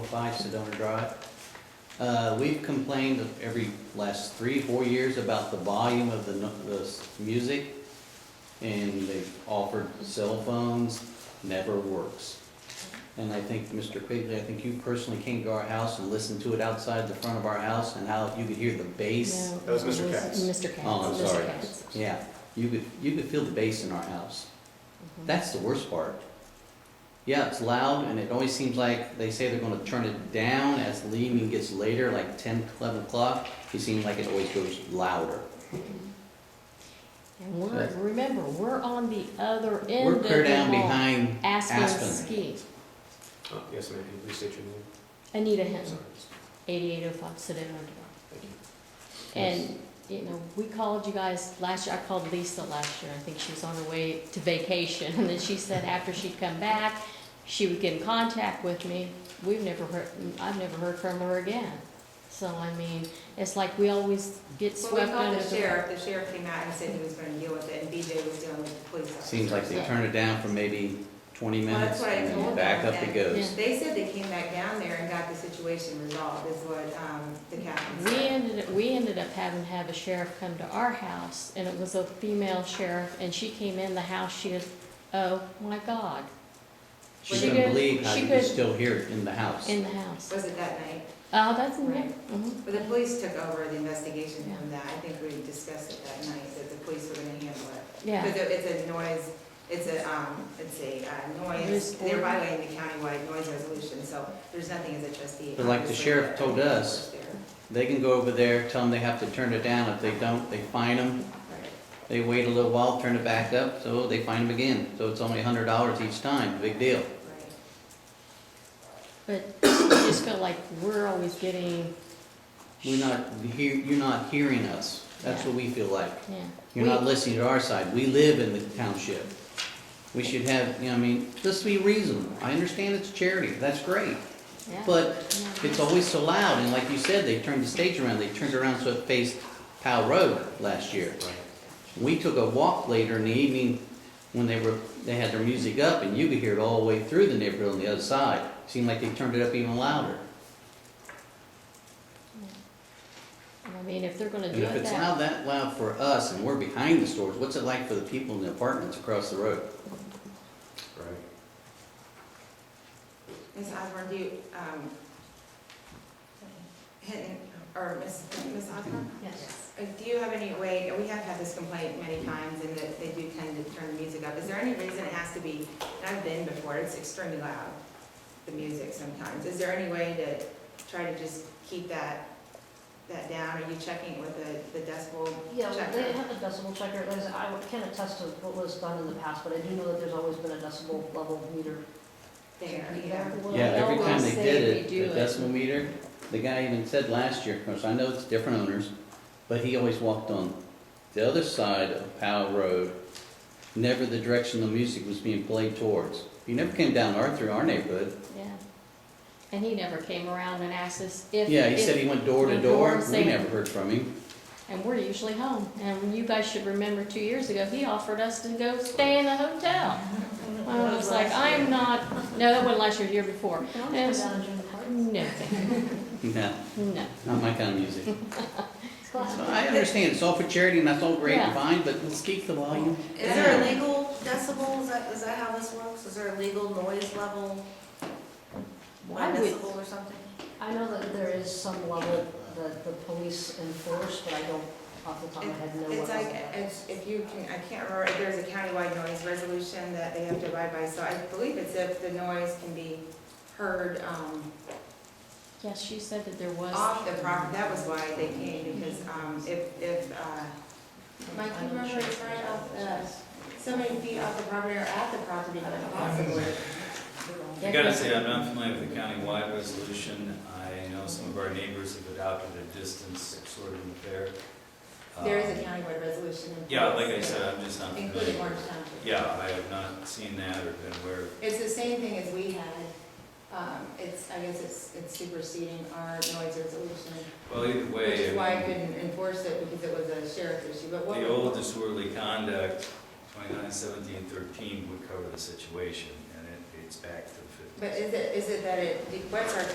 twenty-five Sedona Drive. Uh, we've complained every last three, four years about the volume of the, nu- the s- music, and they've offered cell phones, never works. And I think, Mr. Quigley, I think you personally came to our house and listened to it outside the front of our house, and how you could hear the bass. No, That was it Mr. Katz. Mr. Katz. Oh, I'm Mr. sorry. Katz. Yeah, you could, you could feel the bass in our house. Mhm. That's the worst part. Yeah, it's loud, and it always seems like they say they're gonna turn it down as the evening gets later, like 10, 11 o'clock. It seems like it always goes louder. Mm-hmm. And we're, remember, we're on the other end We're of the clear down hall. behind Aspen Aspen. Ski. Uh, Yes, ma'am, Can you please state your name? Anita I'm Hinton, Sorry. eighty-eight oh five Sedona Drive. Thank you. And, you know, we called you guys last year, I called Lisa last year, I think she was on her way to vacation. And then she said after she'd come back, she would get in contact with me. We've never heard, I've never heard from her again. So, I mean, it's like we always get Well, swept we under the. called the sheriff, the sheriff came out and said he was gonna deal with it, and BJ was dealing with the police officer. Seems like they turn it down for maybe 20 Well, minutes, that's what I and then told back them, up it and goes. They said they came back down there and got the situation resolved, is what, um, the captain We said. ended, we ended up having to have a sheriff come to our house, and it was a female sheriff, and she came in the house, she goes, oh, my God, She she couldn't could- believe how she you could could- still hear it in the house. in the house. Was it that night? Oh, that's, yeah, Right. mhm. But the police took over the investigation from that, I think we discussed it that night, that the police were gonna handle it. yeah, Because it- it's a noise, it's a, um, it's a uh, Noise noise, they're ordinance. violating the countywide noise resolution, so there's nothing as a trustee. But like the obviously, sheriff told that I can us- enforce They can go over there, tell them they have to turn it down. If they don't, they fine them. there. Right. They wait a little while, turn it back up, so they fine them again. So it's only $100 each time, big deal. Right. but I just feel like we're always getting, We're not, hear- you're not hearing us. That's what we feel like. yeah. You're We- not listening to our side. We live in the township. We should have, you know, I mean, let's be reasonable. I understand it's charity, that's great. yeah, But yeah. it's always so loud, and like you said, they turned the stage around. They turned around so it faced Powell Road last year. Right. We took a walk later in the evening when they were, they had their music up, and you could hear it all the way through the neighborhood on the other side. Seemed like they turned it up even louder. And I mean, if they're gonna And do if it it's that, loud, that loud for us, and we're behind the stores, what's it like for the people in the apartments across the road? Right. Ms. Osborne, do you, um, Hinton, or Ms. Ms. Osborne? Yes. Uh, Do you have any way, we have had this complaint many times, and that they do tend to turn the music up. Is there any reason it has to be, and I've been before, it's extremely loud, the music sometimes. Is there any way to try to just keep that, that down? Are you checking with the, the decibel Yeah, they checker? have a decibel checker, As I can attest to what was done in the past, but I do know that there's always been a decibel level meter. There, yeah. There Well, was. Yeah, they every time they always did say it, they do the it. decimal meter, the guy even said last year, of course, I know it's different owners, but he always walked on the other side of Powell Road, never the direction the music was being played towards. He never came down our, through our neighborhood. yeah. And he never came around and asked us if. Yeah, he if- said he went door to the door door, we saying- never heard from him. And we're usually home. And you guys should remember two years ago, he offered us to go stay in a hotel. I was like, I'm not, no, that wasn't last year, the year before. Can I just go down and join the party? No, thank you. No, no. not my kind of music. It's glass. So I understand, it's all for charity and that's all great and Yeah. fine, but let's keep the volume. Is there a legal decibel, is that, is that how this works? Is there a legal noise level, I one would- decibel or something? I know that there is some level that the police enforce, but I don't, off the top of my head, know what. It's like, level that it's- is. if you can, I can't remember, if there's a countywide noise resolution that they have to abide by, so I believe it's if the noise can be heard, um, Yes, she said that there was. off the property, that was why they came, because, um, if, if, uh, my I'm not remember sure. it's right off the, so many feet off the property or at the property, but possibly. I gotta say, I'm not familiar with the countywide resolution. I know some of our neighbors have adopted a distance sort of there. Uh, There is a countywide resolution. in Yeah, like I place, said, I'm just not Including familiar. Orange County. Yeah, I have not seen that or been aware of. It's the same thing as we had, um, it's, I guess it's, it's superseding our noise resolution. Well, either Which is way, why I I mean, couldn't enforce it, because it was a sheriff issue, but what. the old disorderly conduct, twenty-nine seventeen thirteen would cover the situation, and it dates back to the fifties. But is it, is it that it, what's our